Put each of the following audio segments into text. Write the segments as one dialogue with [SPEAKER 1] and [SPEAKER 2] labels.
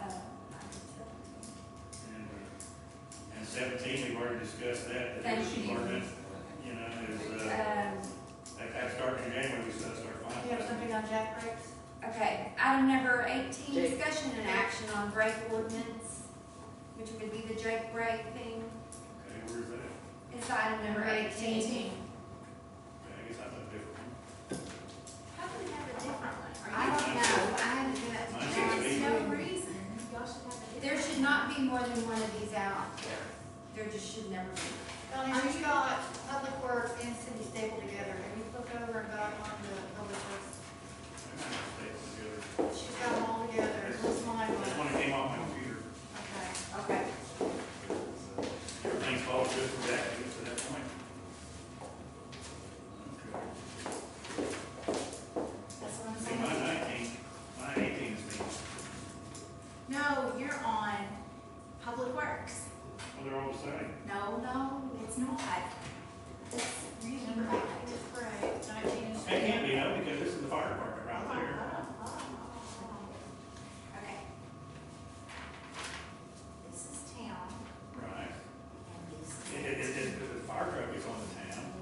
[SPEAKER 1] Um,
[SPEAKER 2] uh, Seventeen, we've already discussed that, that
[SPEAKER 1] Thank
[SPEAKER 2] this
[SPEAKER 1] you.
[SPEAKER 2] department, you know, is, uh,
[SPEAKER 1] Um,
[SPEAKER 2] that kind of starting in January, we start, start
[SPEAKER 3] You have
[SPEAKER 2] finding.
[SPEAKER 3] something on jack brakes?
[SPEAKER 1] Okay, item number eighteen,
[SPEAKER 4] Jake.
[SPEAKER 1] discussion and action on break ordinance, which would be the Jake break thing,
[SPEAKER 2] Okay, where's that?
[SPEAKER 1] It's item number eighteen.
[SPEAKER 2] Okay, I guess I thought different.
[SPEAKER 5] How can we have a different one?
[SPEAKER 1] I don't know, I haven't given it to
[SPEAKER 2] Mine says
[SPEAKER 5] There's
[SPEAKER 2] eight.
[SPEAKER 1] Jake.
[SPEAKER 5] no reason, y'all should have a different.
[SPEAKER 1] There should not be more than one of these out there, there just should never be.
[SPEAKER 3] Donnie, you got Public Works and City Stable together, have you looked over and got on the Public Works?
[SPEAKER 2] I might have taken it together.
[SPEAKER 3] She's got them all together, what's mine
[SPEAKER 2] This
[SPEAKER 3] was?
[SPEAKER 2] one came off my computer.
[SPEAKER 3] Okay.
[SPEAKER 1] Okay.
[SPEAKER 2] Everything's all good for that, I guess, at that point. Okay.
[SPEAKER 3] That's what I'm
[SPEAKER 2] See, my
[SPEAKER 3] saying.
[SPEAKER 2] nineteen, my eighteen is being,
[SPEAKER 5] No, you're on Public Works.
[SPEAKER 2] well, they're all the same.
[SPEAKER 5] No, no, it's not. It's reading
[SPEAKER 3] Number
[SPEAKER 5] right.
[SPEAKER 3] eight is great, nineteen is.
[SPEAKER 2] It can't be, no, because this is the fire department right there.
[SPEAKER 5] Okay. This is town.
[SPEAKER 2] Right.
[SPEAKER 5] and this is-
[SPEAKER 2] It, it, it, it- the fire truck is on the town,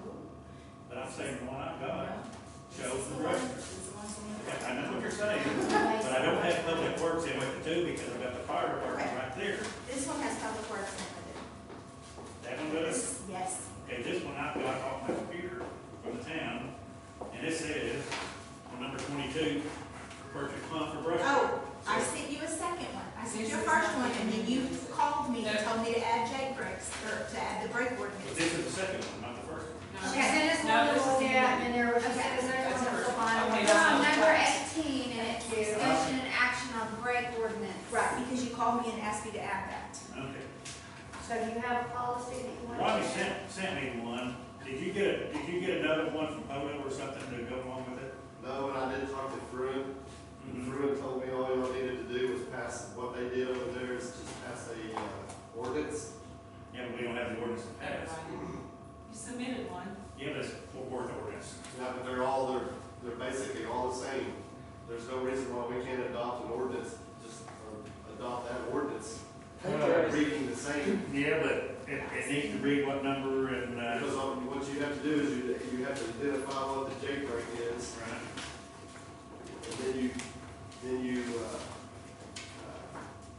[SPEAKER 2] but I'm saying the one I've got shows the road. Yeah, I know what you're saying, but I don't have public works in with the two because I've got the fire department right there.
[SPEAKER 5] This one has Public Works in
[SPEAKER 2] That one
[SPEAKER 5] it.
[SPEAKER 2] does,
[SPEAKER 5] This- Yes.
[SPEAKER 2] okay, this one I've got off my computer from the town, and it says, on number twenty-two, perfect pump for brush.
[SPEAKER 5] Oh, I sent you a second one. I sent you a first one, and then you called me and told me to add Jake breaks, or to add the break
[SPEAKER 2] But
[SPEAKER 5] ordinance.
[SPEAKER 2] this is the second one, not the first one.
[SPEAKER 3] She sent us one that was at, and there was, she sent us one that was the final one.
[SPEAKER 1] It's on number eighteen, and it's discussion and action on break ordinance.
[SPEAKER 5] Right, because you called me and asked me to add that.
[SPEAKER 2] Okay.
[SPEAKER 3] So you have a policy that you want to?
[SPEAKER 2] Robbie sent, sent me one. Did you get, did you get another one from Polo or something to go along with it?
[SPEAKER 6] No, and I did talk to Fruin, and
[SPEAKER 2] Mm-hmm.
[SPEAKER 6] Fruin told me all y'all needed to do was pass, what they did over there is just pass a, uh, ordinance.
[SPEAKER 2] Yeah, but we don't have the ordinance to pass.
[SPEAKER 7] You submitted one.
[SPEAKER 2] Yeah, that's for board ordinance.
[SPEAKER 6] Yeah, but they're all, they're, they're basically all the same. There's no reason why we can't adopt an ordinance, just uh, adopt that ordinance, reading the same.
[SPEAKER 2] Yeah, but it, it needs to read what number and, uh,
[SPEAKER 6] Because um, what you have to do is you, you have to identify what the J break is,
[SPEAKER 2] Right.
[SPEAKER 6] and then you, then you, uh,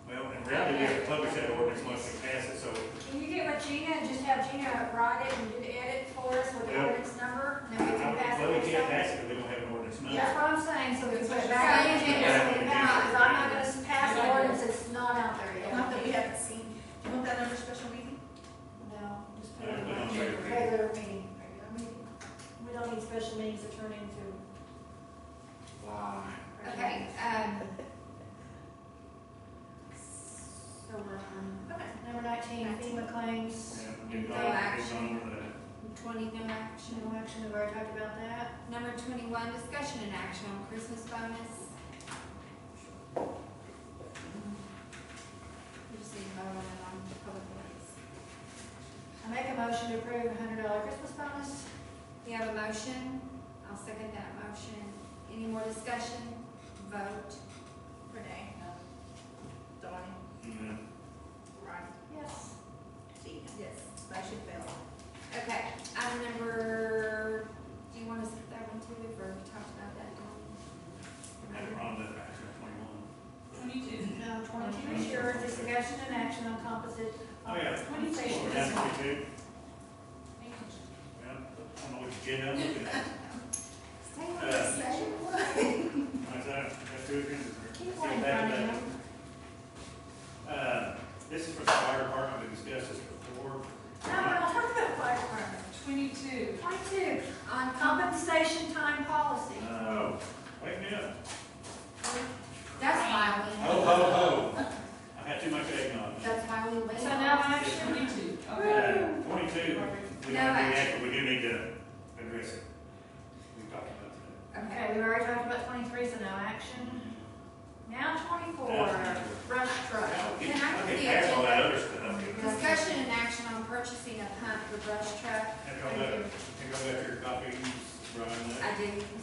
[SPEAKER 2] Well, in reality, we have to publish that ordinance once we pass it, so
[SPEAKER 3] Can you get with Gina and just have Gina write it and do the edit for us with the
[SPEAKER 2] Yeah.
[SPEAKER 3] ordinance number?
[SPEAKER 2] I
[SPEAKER 3] And then we
[SPEAKER 2] don't,
[SPEAKER 3] can pass it.
[SPEAKER 2] well, we can't
[SPEAKER 3] ourselves?
[SPEAKER 2] pass it if we don't have an ordinance
[SPEAKER 3] That's
[SPEAKER 2] number.
[SPEAKER 3] what I'm saying, so we can put it back
[SPEAKER 1] Yeah.
[SPEAKER 3] in Gina and send it out, because I'm not gonna pass the ordinance that's not out there yet.
[SPEAKER 5] Not that we haven't seen. Do you want that under special meeting?
[SPEAKER 3] No, just put
[SPEAKER 2] Yeah,
[SPEAKER 3] it
[SPEAKER 2] put it on
[SPEAKER 3] on
[SPEAKER 2] regular meeting.
[SPEAKER 3] regular meeting.
[SPEAKER 5] Regular meeting.
[SPEAKER 3] We don't need special meetings to turn into.
[SPEAKER 1] Okay, um. So we're on
[SPEAKER 5] Okay.
[SPEAKER 3] Number nineteen, FEMA claims,
[SPEAKER 2] And we've
[SPEAKER 1] No
[SPEAKER 2] gone- we've
[SPEAKER 1] action.
[SPEAKER 2] gone over that.
[SPEAKER 1] twenty, no action.
[SPEAKER 3] no action, we've already talked about that.
[SPEAKER 1] Number twenty-one, discussion and action on Christmas bonus. We just need to vote on it on public works.
[SPEAKER 3] I make a motion to approve a hundred dollar Christmas bonus.
[SPEAKER 1] We have a motion, I'll second that motion. Any more discussion? Vote.
[SPEAKER 5] Renee, no. Donnie,
[SPEAKER 2] Yeah.
[SPEAKER 5] Ron,
[SPEAKER 3] Yes.
[SPEAKER 5] Tina.
[SPEAKER 1] Yes.
[SPEAKER 5] Motion failed.
[SPEAKER 1] Okay, item number, do you want to skip that one too, we've already talked about that?
[SPEAKER 2] Had it
[SPEAKER 1] Dawn?
[SPEAKER 2] wrong, that action twenty-one.
[SPEAKER 7] Twenty-two.
[SPEAKER 3] No, twenty-two is yours, discussion and action on composite.
[SPEAKER 2] Oh, yeah.
[SPEAKER 3] Compensation.
[SPEAKER 2] Well, we're down to 22. Yeah, I don't know what agenda I'm looking at.
[SPEAKER 5] Stay on the same one.
[SPEAKER 2] Like that, that's two agendas.
[SPEAKER 3] Keep one in front of you.
[SPEAKER 2] Uh, this is for the fire department, we discussed this before.
[SPEAKER 3] No, we're not talking about fire department.
[SPEAKER 7] Twenty-two.
[SPEAKER 3] Twenty-two, on compensation time policy.
[SPEAKER 2] Oh, wake me up.
[SPEAKER 1] That's why we.
[SPEAKER 2] Ho, ho, ho. I've had too much eggnog.
[SPEAKER 1] That's why we went.
[SPEAKER 3] So now action.
[SPEAKER 7] Twenty-two. Okay.
[SPEAKER 2] Uh, Twenty-two, we don't
[SPEAKER 1] No
[SPEAKER 2] have any
[SPEAKER 1] action.
[SPEAKER 2] action, we do need to address it. We talked about
[SPEAKER 3] Okay, we already talked about twenty-three, so no action.
[SPEAKER 2] that.
[SPEAKER 3] Now twenty-four,
[SPEAKER 2] That's-
[SPEAKER 3] brush truck.
[SPEAKER 2] I'll get-
[SPEAKER 1] Can I
[SPEAKER 2] I'll
[SPEAKER 1] get
[SPEAKER 2] get
[SPEAKER 1] the
[SPEAKER 2] past all that
[SPEAKER 1] agenda?
[SPEAKER 2] other stuff.
[SPEAKER 1] Discussion and action on purchasing a pump for brush truck.
[SPEAKER 2] Have y'all got, have y'all got your copies, Brian,
[SPEAKER 1] I do.
[SPEAKER 2] uh,